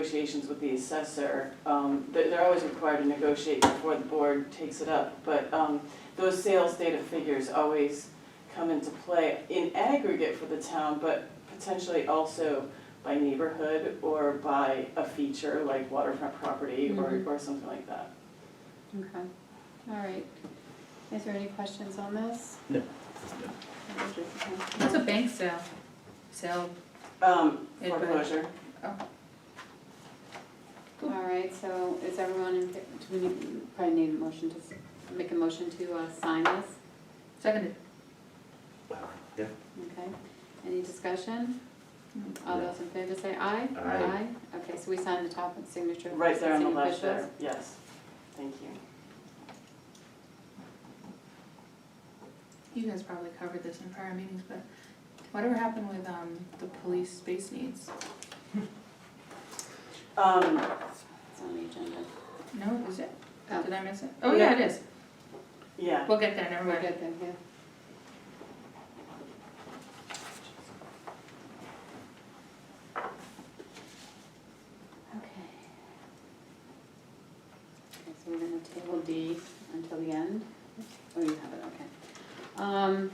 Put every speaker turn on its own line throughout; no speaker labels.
negotiations with the assessor, um, they're, they're always required to negotiate before the board takes it up, but, um, those sales data figures always come into play in aggregate for the town, but potentially also by neighborhood or by a feature like waterfront property or,
Mhm.
or something like that.
Okay, all right. Is there any questions on this?
No.
What's a bank sale? Sale,
Um,
Yeah, go ahead.
foreclosure.
All right, so is everyone in, fa- do we need, probably need a motion to, s- make a motion to uh, sign this?
seconded.
Yeah.
Okay, any discussion? All
No.
those in favor say aye?
Aye.
Okay, so we sign the top and signature. of
Right there on the
existing
left there,
officials.
yes, thank you.
You guys probably covered this in prior meetings, but whatever happened with um the police space needs?
Um,
It's on the agenda.
No, is it?
Oh.
Did I miss it? Oh, yeah, it is.
yeah,
We'll get there, never
We're
mind.
good then, yeah. Okay. Okay, so we're gonna table D until the end. Oh, you have it, okay. Um,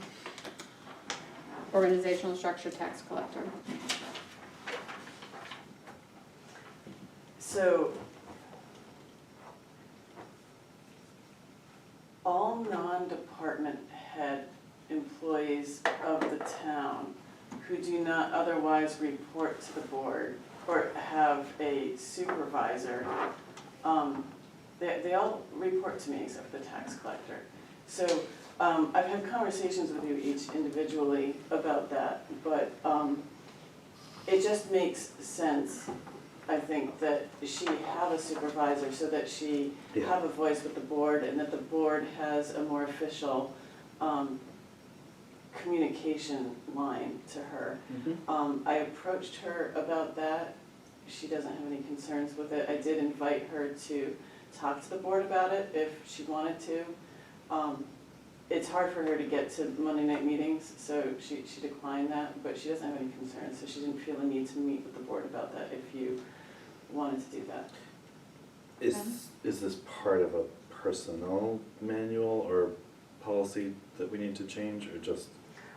organizational structure tax collector.
so. All non-department head employees of the town who do not otherwise report to the board or have a supervisor, um, they, they all report to me except the tax collector. So, um, I've had conversations with you each individually about that, but, um, it just makes sense I think that she have a supervisor so that she
Yeah.
have a voice with the board and that the board has a more official um, communication line to her. Um, I approached her about that. She doesn't have any concerns with it. I did invite her to talk to the board about it if she wanted to. Um, It's hard for her to get to Monday night meetings, so she, she declined that, but she doesn't have any concerns, so she didn't feel the need to meet with the board about that if you wanted to do that.
Is, is this part of a personnel manual or policy that we need to change, or just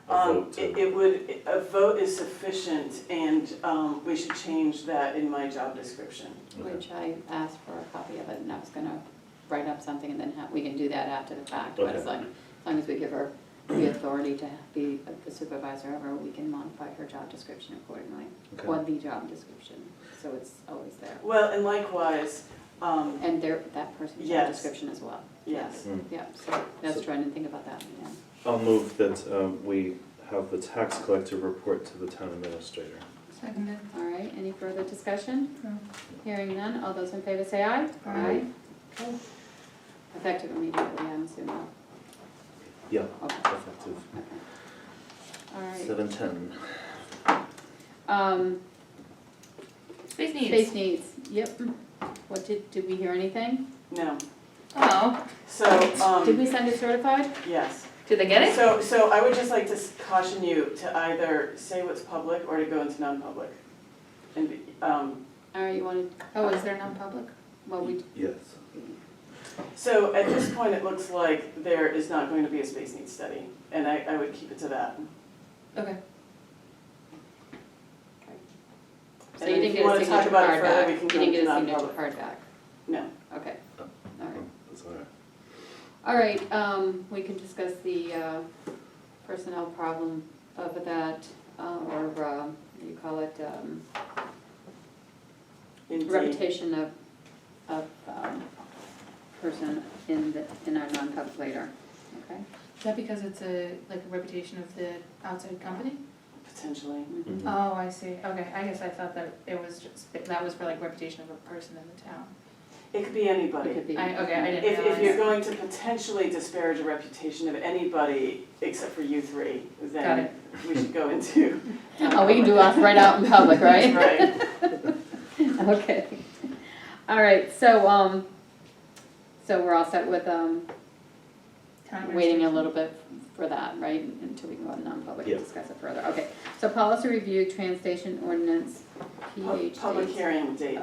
a
Um,
vote
it,
to?
it would, a vote is sufficient and, um, we should change that in my job description.
Okay.
Which I asked for a copy of it, and I was gonna write up something, and then ha- we can do that after the fact, but as
Okay.
long, as long as we give her the authority to be the supervisor of her, we can modify her job description accordingly,
Okay.
or the job description, so it's always there.
Well, and likewise, um,
And there, that person's job
Yes.
description as well.
yes,
Mm.
Yeah, so that's
So-
trying to think about that, yeah.
I'll move that um, we have the tax collector report to the town administrator.
Seconded. Oh.
All right, any further discussion?
No.
Hearing none, all those in favor say aye.
Aye.
Okay. Effective immediately, I'm assuming,
Yeah,
okay,
effective
okay. All right.
seven ten.
Um,
Space
space
needs.
needs, yep. What, did, did we hear anything?
no.
Oh,
So,
Did
um,
we send it certified?
yes.
did they get it?
So, so I would just like to caution you to either say what's public or to go into non-public. And, be- um,
All right, you wanted,
Oh, is there non-public?
well, we,
Yes.
so at this point, it looks like there is not going to be a space needs study, and I, I would keep it to that.
Okay.
so
And
you
if
didn't
you
get
wanna
a
talk
signature
about it
card
further,
back?
we can go
You didn't
into
get a signature
non-public.
card back?
No.
Okay,
Oh.
all right.
That's all right.
All right, um, we can discuss the, uh, personnel problem of that, uh, or, uh, what do you call it, um,
Indeed.
reputation of, of, um, person in the, in our non-public later, okay?
Is that because it's a, like a reputation of the outside company?
Potentially.
Mhm.
Mhm.
Oh, I see. Okay, I guess I thought that it was just, that was for like reputation of a person in the town.
It could be
It
anybody.
could be-
I, okay, I didn't
If,
realize.
if you're going to potentially disparage a reputation of anybody except for you three,
Got
then
it.
we should go into.
Oh, we can do ours right out in public, right?
Right.
Okay. All right, so, um, so we're all set with, um,
Town
waiting a
administration.
little bit for that, right? Until we can go to non-public
Yeah.
and discuss it further. Okay, so policy review, train station ordinance, PhD.
Public hearing date.